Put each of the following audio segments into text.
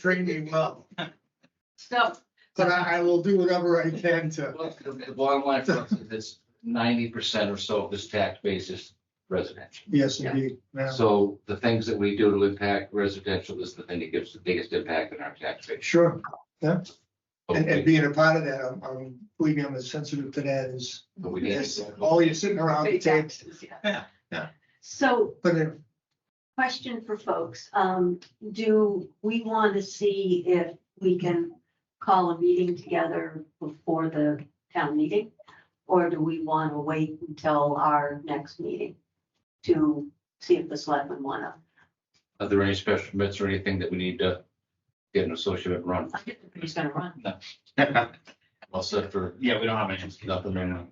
extremely well, So, but I, I will do whatever I can to, Well, The the bottom line for us is it's ninety percent or so of this tax base is residential. yes, indeed. yeah. So the things that we do to impact residential is the thing that gives the biggest impact on our tax base. Sure, and, and being a part of that, I'm, I'm, believe me, I'm as sensitive to that as, But we need as to- all you sitting around the state table. taxes, Yeah, yeah. yeah. So But it- question for folks, um, do we want to see if we can call a meeting together before the town meeting? Or do we want to wait until our next meeting to see if the selectmen want to? Are there any special permits or anything that we need to get an associate run? I think he's gonna run. Well, set for, Yeah, we don't have any. nothing, right now.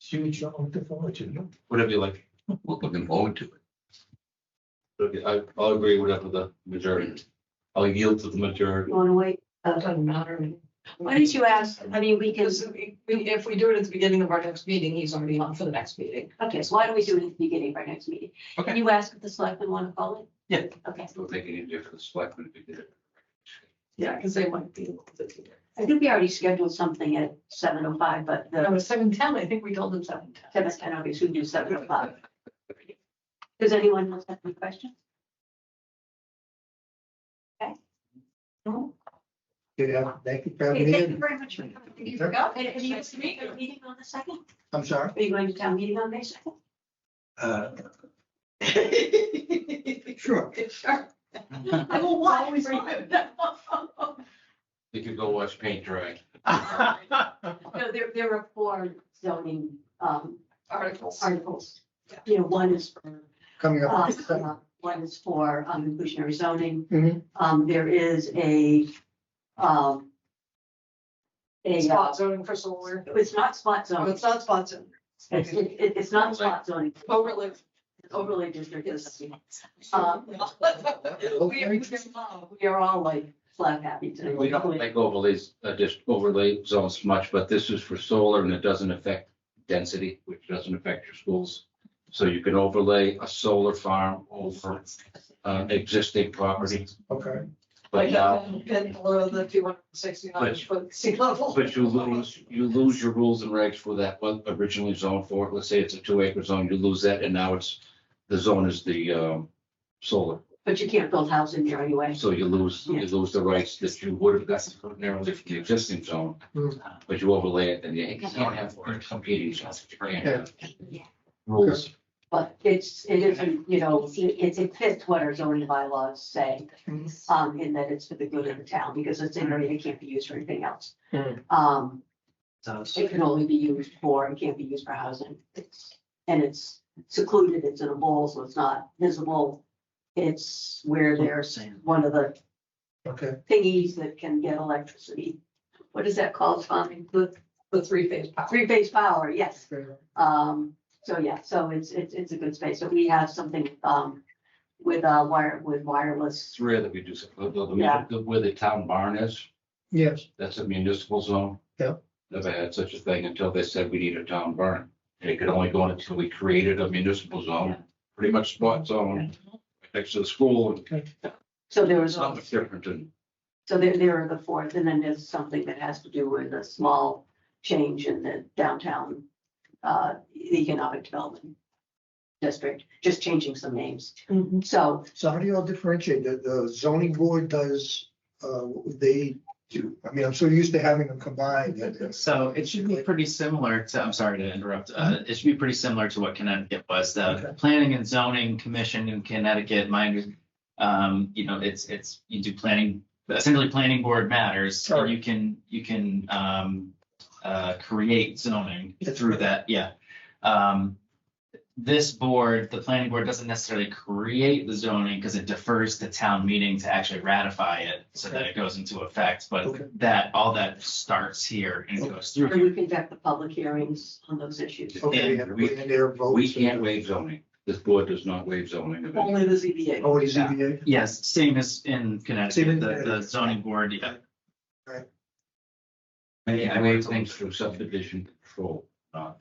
Huge, I look forward to whatever you like. We're looking forward to it. Okay, I, I'll agree whatever the majority. I'll yield to the majority. You want to wait? Doesn't matter. Why did you ask? I mean, we can, Because we- we- if we do it at the beginning of our next meeting, he's already on for the next meeting. okay, so why don't we do it at the beginning of our next meeting? Can Okay. you ask if the selectmen want to call it? Yeah. Okay. It would make any difference, like, if we did it. Yeah, because they might be. a little bit- I think we already scheduled something at seven oh five, but the No, it's seven ten, I think we told them seven ten. Seven, ten, okay, so we do seven o'clock. Does anyone else have any questions? No? yeah, thank you for having Okay, me. thank you in. very much for coming. You forgot? And and you have a meeting on the second? I'm sorry. Are you going to town meeting on May second? it. Sure. Sure. I will watch for you. You could go watch paint dry. No, there, there are four zoning, um, Articles. articles. You know, one is for, Coming uh, up. uh, one is for um, inclusionary zoning. Mhm. Um, there is a, um, a, uh, Spot zoning for solar. it's not spot No, zone. it's not spot zoning. It's, it, it- it's not spot zoning, Overlay. it's overlay district. Yes. Um, We are, We are all like slap happy today. We don't like overlays, uh, just overlay zones much, but this is for solar and it doesn't affect density, which doesn't affect your schools. So you can overlay a solar farm over, uh, existing property, Okay, but now, Been below the two hundred sixty-nine But- foot sea level. but you lose, you lose your rules and regs for that, what originally zoned for, let's say it's a two acre zone, you lose that, and now it's, the zone is the, um, solar, But you can't build housing there anyway. so you lose, you lose the rights that you would have gotten narrowly from the existing zone, but you overlay it, then you can't have competing zones. You can't have Rules. But it's, it isn't, you know, it, it fits what our zoning bylaws say, um, in that it's for the good of the town, because it's an area that can't be used for anything else. Hmm. Um, Sounds- it can only be used for, and can't be used for housing. It's- And it's secluded, it's in a bowl, so it's not visible. It's where there's one of the okay. thingies that can get electricity. What is that called, Tommy? The The three phase power. three-phase power, yes. fair. Um, so yeah, so it's, it's, it's a good space. So we have something, um, with, uh, wire, with wireless. It's rare that we do, so- the- the- Yeah. the- where the town barn is, Yes, that's a municipal zone. Yeah. Never had such a thing until they said we need a town barn. And it could only go until we created a municipal zone, pretty much spot zone, next to the school. So there was, It's not much different than, so there, there are the fourth, and then there's something that has to do with a small change in the downtown, uh, economic development district, just changing some names. So so how do you all differentiate? The, the zoning board does, uh, what would they do? I mean, I'm so used to having them combined. that- that's- So it should be pretty similar to, I'm sorry to interrupt, uh, it should be pretty similar to what Connecticut was. Okay. The Planning and Zoning Commission in Connecticut, mine, um, you know, it's, it's, you do planning, essentially planning board matters. Sure. and You can, you can, um, uh, create zoning That's through right. that, yeah. Um, this board, the planning board doesn't necessarily create the zoning because it defers to town meeting to actually ratify it so that it goes into effect, Okay. but that, all that starts here and Okay. goes through. and we conduct the public hearings on those issues. Okay, Yeah, and we- their votes. we can't waive zoning. This board does not waive zoning. of any- Only the ZBA. Oh, is ZBA? Yes, same as in Same in Connecticut, the, the Connecticut. zoning board, yeah. They waive things through subdivision control, not.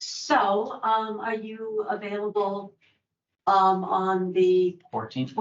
So, um, are you available, um, on the Fourteenth?